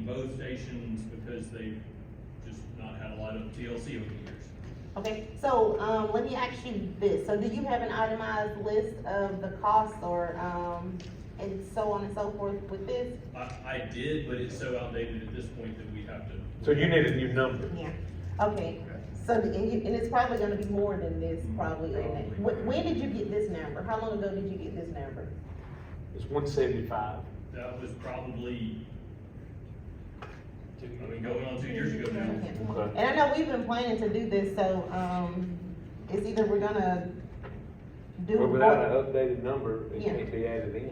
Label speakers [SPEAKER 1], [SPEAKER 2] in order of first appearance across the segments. [SPEAKER 1] both stations because they've just not had a lot of TLC over the years.
[SPEAKER 2] Okay, so, um, let me ask you this, so do you have an itemized list of the costs or, um, and so on and so forth with this?
[SPEAKER 1] I, I did, but it's so outdated at this point that we have to.
[SPEAKER 3] So you need a new number.
[SPEAKER 2] Yeah. Okay, so, and you, and it's probably gonna be more than this, probably, isn't it? When, when did you get this number? How long ago did you get this number?
[SPEAKER 3] It's one seventy-five.
[SPEAKER 1] That was probably, I mean, going on two years ago now.
[SPEAKER 3] Okay.
[SPEAKER 2] And I know we've been planning to do this, so, um, it's either we're gonna do.
[SPEAKER 3] But without an updated number, it
[SPEAKER 2] Yeah.
[SPEAKER 3] can't be added in.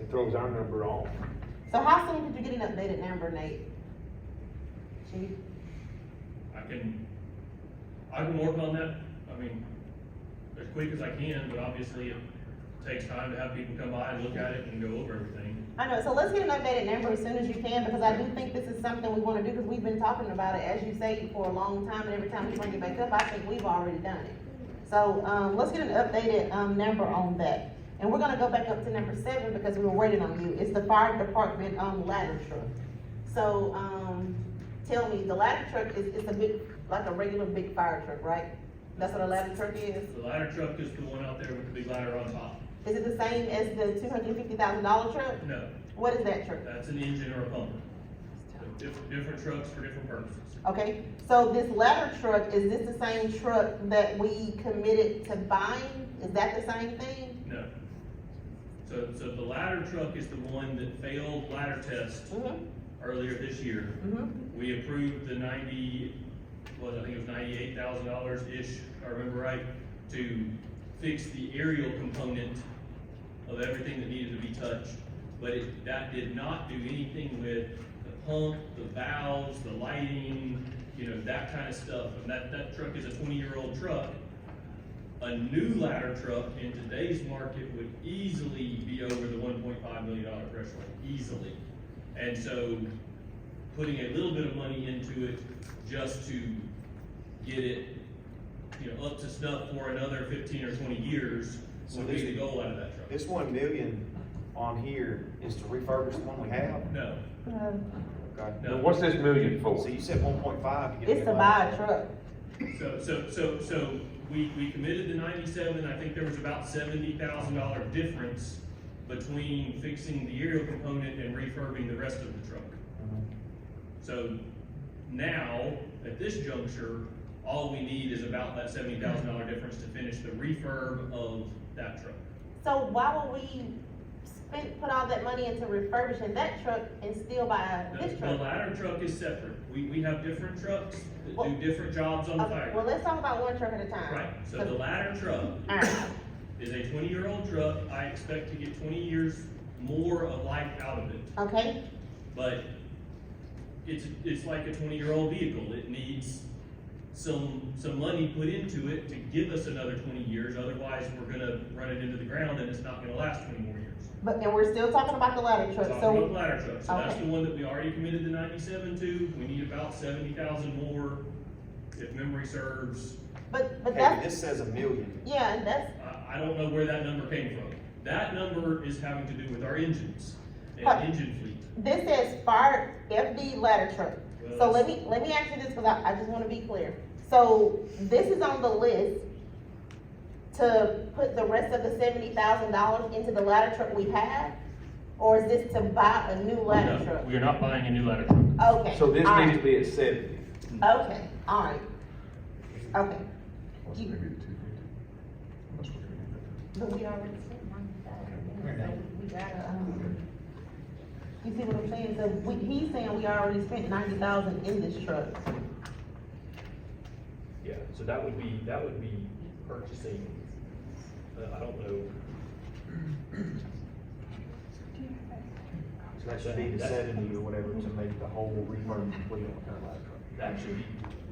[SPEAKER 3] It throws our number off.
[SPEAKER 2] So how soon did you get an updated number, Nate? Chief?
[SPEAKER 1] I can, I can work on that, I mean, as quick as I can, but obviously it takes time to have people come by and look at it and go over everything.
[SPEAKER 2] I know, so let's get an updated number as soon as you can, because I do think this is something we wanna do, because we've been talking about it, as you say, for a long time, and every time we bring it back up, I think we've already done it. So, um, let's get an updated, um, number on that. And we're gonna go back up to number seven, because we were waiting on you, it's the fire department, um, ladder truck. So, um, tell me, the ladder truck is, is a big, like a regular big fire truck, right? That's what a ladder truck is?
[SPEAKER 1] The ladder truck is the one out there with the big ladder on top.
[SPEAKER 2] Is it the same as the two hundred and fifty thousand dollar truck?
[SPEAKER 1] No,
[SPEAKER 2] What is that truck?
[SPEAKER 1] that's an engine or a pumper. They're Different, different trucks for different purposes.
[SPEAKER 2] Okay, so this ladder truck, is this the same truck that we committed to buying? Is that the same thing?
[SPEAKER 1] No. So, so the ladder truck is the one that failed ladder test
[SPEAKER 2] Mm-hmm,
[SPEAKER 1] earlier this year.
[SPEAKER 2] mm-hmm,
[SPEAKER 1] We approved the ninety, what, I think it was ninety-eight thousand dollars-ish, if I remember right, to fix the aerial component of everything that needed to be touched. But it, that did not do anything with the pump, the valves, the lighting, you know, that kind of stuff. And that, that truck is a twenty-year-old truck. A new ladder truck in today's market would easily be over the one point five million dollar threshold, easily. And so putting a little bit of money into it just to get it, you know, up to snuff for another fifteen or twenty years
[SPEAKER 4] So
[SPEAKER 1] would be
[SPEAKER 4] this-
[SPEAKER 1] the goal out of that truck.
[SPEAKER 4] This one million on here is to refurbish the one we have?
[SPEAKER 1] No,
[SPEAKER 4] Okay.
[SPEAKER 1] No.
[SPEAKER 3] Now, what's this million for?
[SPEAKER 4] So you said one point five to get.
[SPEAKER 2] it's to buy a truck.
[SPEAKER 1] so, so, so, so we, we committed the ninety-seven, I think there was about seventy thousand dollar difference between fixing the aerial component and refurbing the rest of the truck.
[SPEAKER 4] Mm-hmm.
[SPEAKER 1] So now, at this juncture, all we need is about that seventy thousand dollar difference to finish the refurb of that truck.
[SPEAKER 2] So why would we spend, put all that money into refurbishing that truck and still buy
[SPEAKER 1] The-
[SPEAKER 2] this
[SPEAKER 1] The
[SPEAKER 2] truck?
[SPEAKER 1] ladder truck is separate. We, we have different trucks that
[SPEAKER 2] Well-
[SPEAKER 1] do different jobs on
[SPEAKER 2] Okay,
[SPEAKER 1] fire.
[SPEAKER 2] well, let's talk about one truck at a time.
[SPEAKER 1] Right, so the ladder truck
[SPEAKER 2] Alright,
[SPEAKER 1] is a twenty-year-old truck. I expect to get twenty years more of life out of it.
[SPEAKER 2] okay,
[SPEAKER 1] But it's, it's like a twenty-year-old vehicle. It needs some, some money put into it to give us another twenty years. Otherwise, we're gonna run it into the ground and it's not gonna last twenty more years.
[SPEAKER 2] but, and we're still talking about the ladder truck,
[SPEAKER 1] Talking about
[SPEAKER 2] so,
[SPEAKER 1] ladder truck, so that's
[SPEAKER 2] okay.
[SPEAKER 1] the one that we already committed the ninety-seven to, we need about seventy thousand more, if memory serves.
[SPEAKER 2] but, but
[SPEAKER 4] Okay,
[SPEAKER 2] that's,
[SPEAKER 4] this says a million.
[SPEAKER 2] yeah, and that's,
[SPEAKER 1] I, I don't know where that number came from. That number is having to do with our engines and
[SPEAKER 2] Right.
[SPEAKER 1] engine fleet.
[SPEAKER 2] This says fire FD ladder truck. So
[SPEAKER 1] Well,
[SPEAKER 2] let me, let me ask you this, because I, I just wanna be clear. So this is on the list to put the rest of the seventy thousand dollars into the ladder truck we have? Or is this to buy a new
[SPEAKER 1] No,
[SPEAKER 2] ladder truck?
[SPEAKER 1] We are not buying a new ladder truck.
[SPEAKER 2] Okay.
[SPEAKER 3] So this
[SPEAKER 2] all
[SPEAKER 3] needs
[SPEAKER 2] right.
[SPEAKER 3] to be at seventy.
[SPEAKER 2] Okay, all right. Okay,
[SPEAKER 5] Plus
[SPEAKER 2] You-
[SPEAKER 5] maybe the two fifty. Unless we're gonna get that.
[SPEAKER 2] but we already spent We gotta, um, you see what I'm saying? So we, he's saying we already spent ninety thousand in this truck.
[SPEAKER 6] Yeah, so that would be, that would be purchasing, uh, I don't know.
[SPEAKER 4] So that should be the seventy or whatever to make the whole refurb complete on the ladder
[SPEAKER 6] That should be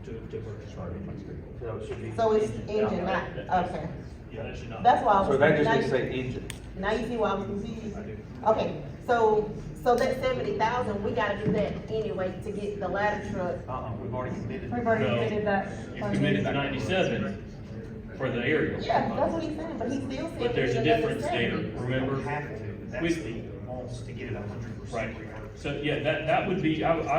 [SPEAKER 6] to, to purchase our engines.
[SPEAKER 4] truck. So it should be.
[SPEAKER 2] So it's engine, not, okay.
[SPEAKER 6] Yeah, that should not.
[SPEAKER 2] That's why I was.
[SPEAKER 3] So that just
[SPEAKER 2] now
[SPEAKER 3] needs to
[SPEAKER 2] you-
[SPEAKER 3] say engine.
[SPEAKER 2] Now you see why I was confused.
[SPEAKER 6] I do.
[SPEAKER 2] Okay, so, so that seventy thousand, we gotta do that anyway to get the ladder truck.
[SPEAKER 4] Uh-uh, we've already committed.
[SPEAKER 7] We've already
[SPEAKER 1] No.
[SPEAKER 7] committed that.
[SPEAKER 1] You
[SPEAKER 7] funding.
[SPEAKER 1] committed the ninety-seven for the aerial.
[SPEAKER 2] Yeah, that's what he's saying, but he still said.
[SPEAKER 1] But there's
[SPEAKER 2] we
[SPEAKER 1] a
[SPEAKER 2] need another
[SPEAKER 1] difference there,
[SPEAKER 2] 70.
[SPEAKER 4] We
[SPEAKER 1] remember?
[SPEAKER 4] don't have to, that's
[SPEAKER 1] With-
[SPEAKER 4] the wants to get it a hundred
[SPEAKER 1] Right,
[SPEAKER 4] percent refurbished.
[SPEAKER 6] So, yeah, that, that would be, I, I